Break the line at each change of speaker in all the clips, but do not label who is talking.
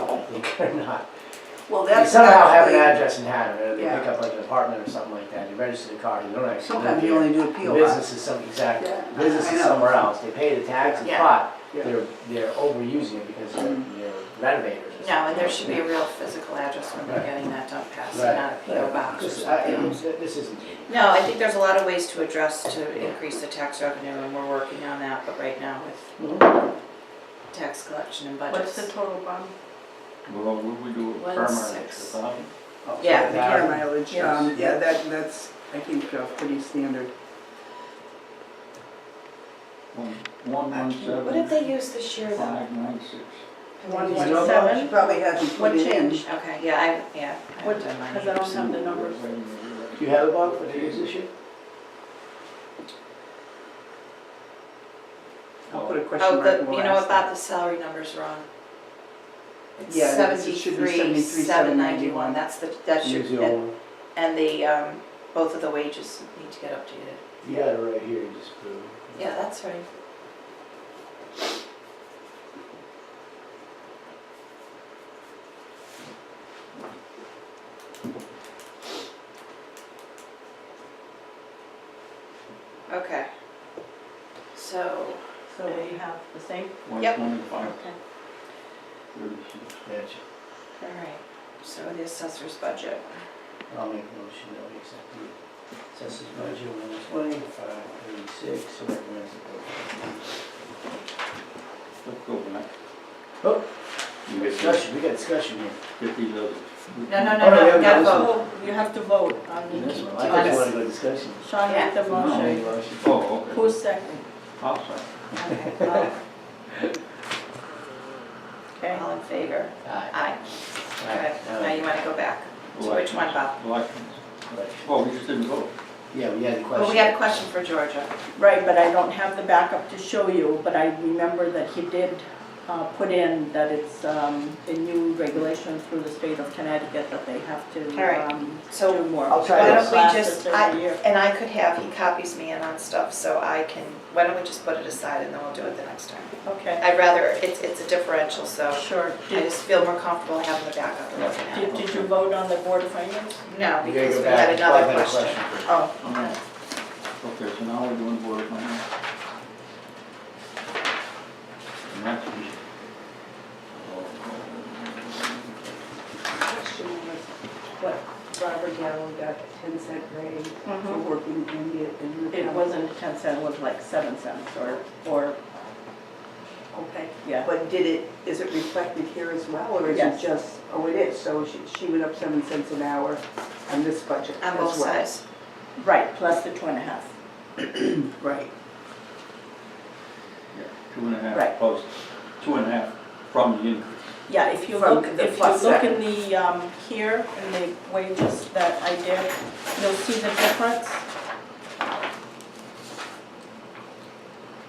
or not.
Well,
You
that's
somehow have an
actually,
address in Haddon, or they pick
Yeah.
up like an apartment or something like that, you register the car, you don't actually live
sometimes you
here.
only do a
The
PO box.
Business is some, exactly,
Yeah,
the business
I
is
know.
somewhere else, they pay the tax and
Yeah. Mm-hmm.
pot,
Yeah.
they're, they're overusing it because they're they're renovators. or
No, and there
something.
should be a real physical address when we're getting that done passed,
Right.
not a PO box or
This- I-
something.
it's- This isn't.
No, I think there's a lot of ways to address to increase the tax revenue, and we're working on that, but right now with tax collection and
What's the
budgets.
total bond?
Well, would we do it
One
for
six.
our,
The
Yeah.
car mileage, um,
Yes.
yeah, that, that's, I think, uh, pretty standard.
one, one,
What did
seven,
they use this year though?
five, nine, six.
One
one
one
seven?
She
seven?
probably hasn't put
What
it in.
change?
Okay, yeah, I, yeah, I
What,
haven't done mine.
because I don't have the numbers.
Wait a minute, wait a
Do you have a bond for the use this year?
I'll put a question
Oh,
mark
the,
and we'll
you know
ask
what, Bob, the salary number's wrong. It's
Yeah, it is. It should be
seventy-three,
73,791.
seven ninety-one, that's the, that
Use
should,
the old one.
and the, um, both of the wages need to get updated.
You got it right here, you just put it.
Yeah, that's right. Okay. So,
So we have the same?
minute. One
Yep.
twenty-five,
Okay.
thirty-six.
Gotcha.
all right, so the assessor's budget.
I'll make a motion that we accept the census budget one oh twenty, five thirty-six, and everyone's.
Let's go back.
Oh.
You
We got
get this
discussion, we got discussion here.
fifty levels.
No, no,
Oh, no,
no,
we
no,
haven't
we gotta
done
vote.
Oh, you have to vote on
In
the,
this one, I thought you
Yes.
wanted to go discussion.
Sean made the motion.
Oh, okay.
Who's second?
I'll second.
Okay, well,
Okay.
all in favor?
Aye.
Aye. Okay, now you wanna go back to which one, Bob?
Elections.
Right.
Oh, we just didn't vote.
Yeah, we had a question.
Well, we had a question for Georgia.
Right, but I don't have the backup to show you, but I remember that he did uh, put in that it's um, a new regulation through the state of Connecticut that they have
All right.
to um,
So
do more.
I'll try Why don't we
just-
classes
I-
every year.
And I could have, he copies me in on stuff, so I can, why don't we just put it aside and then we'll do it the next time?
Okay,
I'd rather, it's, it's a differential, so
sure.
I
Did
just feel more comfortable having the backup and looking at it.
did- did you vote on the board of finance?
No,
You gotta
because
go
we
back.
had another
Five minute
question.
first.
Oh,
Okay, Okay, so now we're doing board appointments. And that's. Oh.
question was what Robert Gallo got the ten cent raise for
mhm.
working in the, in the.
it wasn't 10 cents, it was like 7 cents or, or,
Okay,
yeah.
but did it, is it reflected here as well, or is it
Yes.
just, oh, it is, so she, she went up seven cents an hour on this budget as
On
well?
both sides.
Right, plus the two and a half.
Right.
Yeah, Two and a
Right.
half plus, two and a half from the increase.
Yeah, if you
From
look,
the
if you
plus
look in the, um, here, in the wages that I did, you'll see the difference.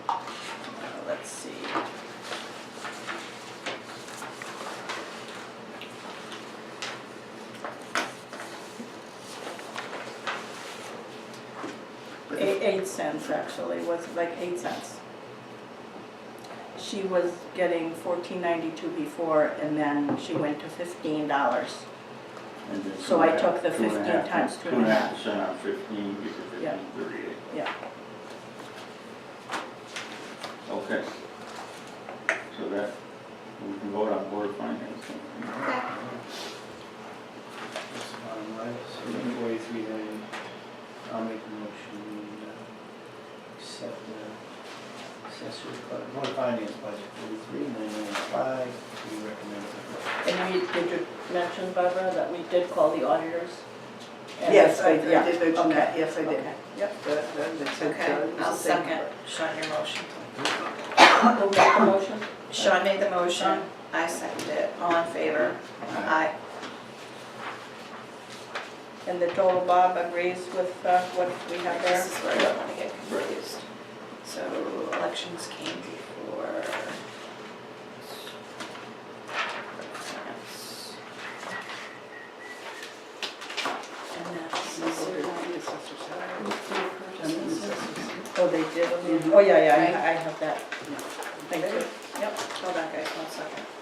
Uh, Let's see. Eight, eight cents actually, was like eight cents. She was getting fourteen ninety-two before, and then she went to fifteen dollars.
And then
So
two
I
and a
took
half-
the
two and a
15
half-
times two
Two and a half
and
percent on fifteen, you get
Yeah.
fifteen thirty-eight.
Yeah.
Okay. So that, we can vote on board finance.
That's the bottom line, so forty-three million. I'll make a motion, we, uh, accept the accessory, bu- board of finance budget, forty-three million, five, we recommend. it.
And we, did you mention, Barbara, that we did call the auditors? And
Yes, I I
it's- yeah,
did mention that,
okay,
yes, I did.
okay, Yep.
That- that- that said, uh,
Okay,
it's
I'll
the same.
second Sean your motion.
Who made the motion?
Sean made the motion, I seconded it, all in favor? Aye.
And the total Bob agrees with uh, what we have there?
This is where I don't wanna get confused. So elections came before. And that's
And we'll
zero.
vote on the assessor's salary. And the assessor's-
Oh, they did, oh yeah, yeah, I- I have that. Thank you.
Hold on guys, one second.